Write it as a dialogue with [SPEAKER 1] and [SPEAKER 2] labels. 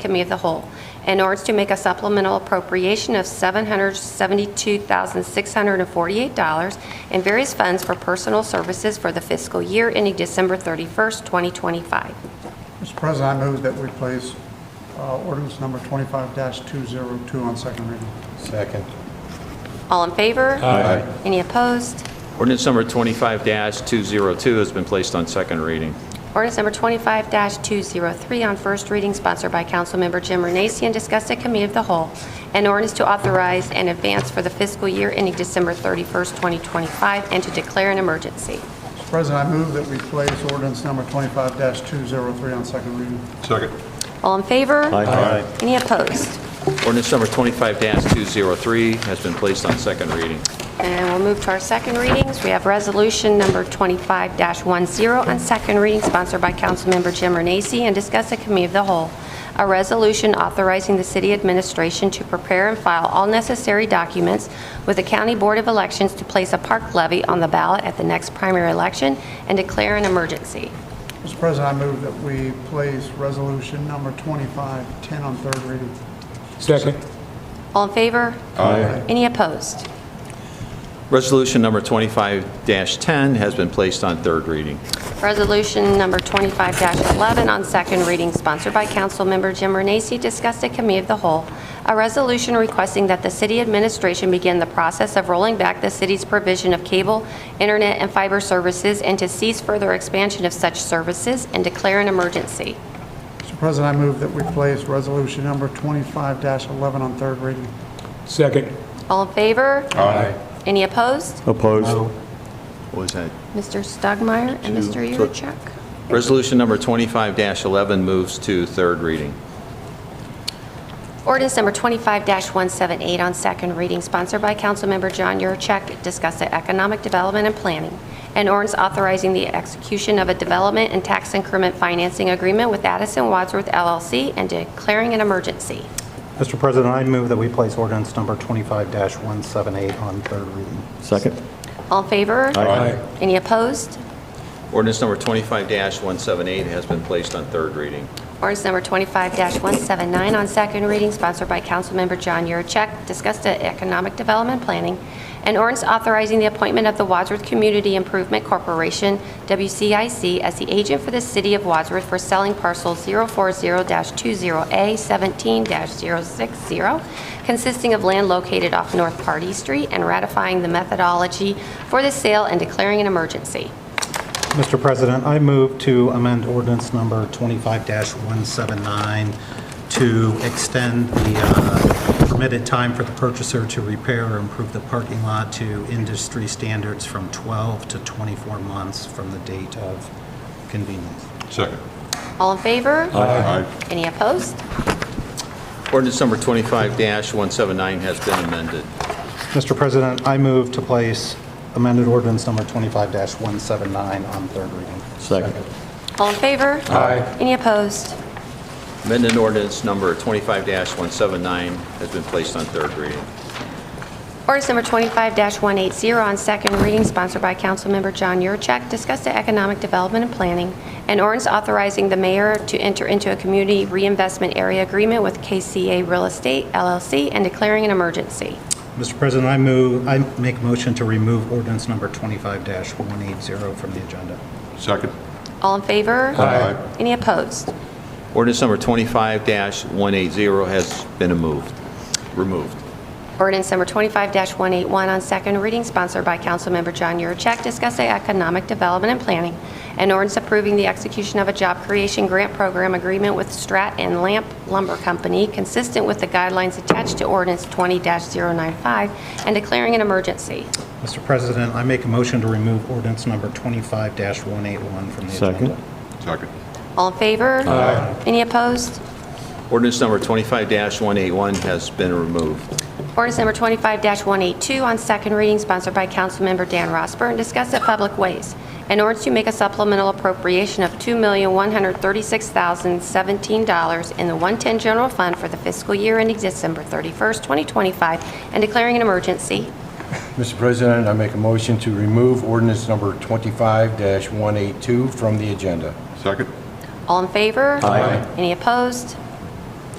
[SPEAKER 1] Committee of the Whole, in order to make a supplemental appropriation of $772,648 in various funds for personal services for the fiscal year ending December 31st, 2025.
[SPEAKER 2] Mr. President, I move that we place uh, ordinance number 25-202 on second reading.
[SPEAKER 3] Second.
[SPEAKER 1] All in favor?
[SPEAKER 3] Aye.
[SPEAKER 1] Any opposed?
[SPEAKER 4] Ordinance number 25-202 has been placed on second reading.
[SPEAKER 1] Ordinance number 25-203 on first reading, sponsored by Councilmember Jim Renacci and discussed at Committee of the Whole. An ordinance to authorize an advance for the fiscal year ending December 31st, 2025, and to declare an emergency.
[SPEAKER 2] Mr. President, I move that we place ordinance number 25-203 on second reading.
[SPEAKER 3] Second.
[SPEAKER 1] All in favor?
[SPEAKER 3] Aye.
[SPEAKER 1] Any opposed?
[SPEAKER 4] Ordinance number 25-203 has been placed on second reading.
[SPEAKER 1] And we'll move to our second readings. We have resolution number 25-10 on second reading, sponsored by Councilmember Jim Renacci, and discussed at committee of the whole. A resolution authorizing the city administration to prepare and file all necessary documents with the County Board of Elections to place a park levy on the ballot at the next primary election and declare an emergency.
[SPEAKER 2] Mr. President, I move that we place resolution number 2510 on third reading.
[SPEAKER 5] Second.
[SPEAKER 1] All in favor?
[SPEAKER 3] Aye.
[SPEAKER 1] Any opposed?
[SPEAKER 4] Resolution number 25-10 has been placed on third reading.
[SPEAKER 1] Resolution number 25-11 on second reading, sponsored by Councilmember Jim Renacci, discussed at Committee of the Whole. A resolution requesting that the city administration begin the process of rolling back the city's provision of cable, internet, and fiber services, and to cease further expansion of such services and declare an emergency.
[SPEAKER 2] Mr. President, I move that we place resolution number 25-11 on third reading.
[SPEAKER 5] Second.
[SPEAKER 1] All in favor?
[SPEAKER 3] Aye.
[SPEAKER 1] Any opposed?
[SPEAKER 6] Opposed?
[SPEAKER 4] What was that?
[SPEAKER 1] Mr. Stugmeyer and Mr. Yurcheck.
[SPEAKER 4] Resolution number 25-11 moves to third reading.
[SPEAKER 1] Ordinance number 25-178 on second reading, sponsored by Councilmember John Yurcheck, discussed at Economic Development and Planning, an ordinance authorizing the execution of a development and tax increment financing agreement with Addison Wadsworth LLC and declaring an emergency.
[SPEAKER 7] Mr. President, I move that we place ordinance number 25-178 on third reading.
[SPEAKER 6] Second?
[SPEAKER 1] All in favor?
[SPEAKER 6] Aye.
[SPEAKER 1] Any opposed?
[SPEAKER 4] Ordinance number 25-178 has been placed on third reading.
[SPEAKER 1] Ordinance number 25-179 on second reading, sponsored by Councilmember John Yurcheck, discussed at Economic Development Planning, and ordinance authorizing the appointment of the Wadsworth Community Improvement Corporation, WCIC, as the agent for the city of Wadsworth for selling parcel 040-20A17-060, consisting of land located off North Party Street, and ratifying the methodology for the sale and declaring an emergency.
[SPEAKER 7] Mr. President, I move to amend ordinance number 25-179 to extend the uh, permitted time for the purchaser to repair or improve the parking lot to industry standards from 12 to 24 months from the date of convenience.
[SPEAKER 3] Second.
[SPEAKER 1] All in favor?
[SPEAKER 3] Aye.
[SPEAKER 1] Any opposed?
[SPEAKER 4] Ordinance number 25-179 has been amended.
[SPEAKER 7] Mr. President, I move to place amended ordinance number 25-179 on third reading.
[SPEAKER 6] Second.
[SPEAKER 1] All in favor? Aye. Any opposed?
[SPEAKER 4] Amended ordinance number 25-179 has been placed on third reading.
[SPEAKER 1] Ordinance number 25-180 on second reading, sponsored by Councilmember John Yurcheck, discussed at Economic Development and Planning, and ordinance authorizing the mayor to enter into a community reinvestment area agreement with KCA Real Estate LLC and declaring an emergency.
[SPEAKER 7] Mr. President, I move, I make a motion to remove ordinance number 25-180 from the agenda.
[SPEAKER 3] Second.
[SPEAKER 1] All in favor?
[SPEAKER 3] Aye.
[SPEAKER 1] Any opposed?
[SPEAKER 4] Ordinance number 25-180 has been removed. Removed.
[SPEAKER 1] Ordinance number 25-181 on second reading, sponsored by Councilmember John Yurcheck, discussing economic development and planning, and ordinance approving the execution of a job creation grant program agreement with Strat and Lamp Lumber Company, consistent with the guidelines attached to ordinance 20-095, and declaring an emergency.
[SPEAKER 7] Mr. President, I make a motion to remove ordinance number 25-181 from the
[SPEAKER 6] Second.
[SPEAKER 7] agenda.
[SPEAKER 3] Second.
[SPEAKER 1] All in favor? Aye. Any opposed?
[SPEAKER 4] Ordinance number 25-181 has been removed.
[SPEAKER 1] Ordinance number 25-182 on second reading, sponsored by Councilmember Dan Rosburn, discussed at Public Ways. An ordinance to make a supplemental appropriation of $2,136,017 in the 110 General Fund for the fiscal year ending December 31st, 2025, and declaring an emergency.
[SPEAKER 8] Mr. President, I make a motion to remove ordinance number 25-182 from the agenda.
[SPEAKER 3] Second.
[SPEAKER 1] All in favor? Aye. Any opposed?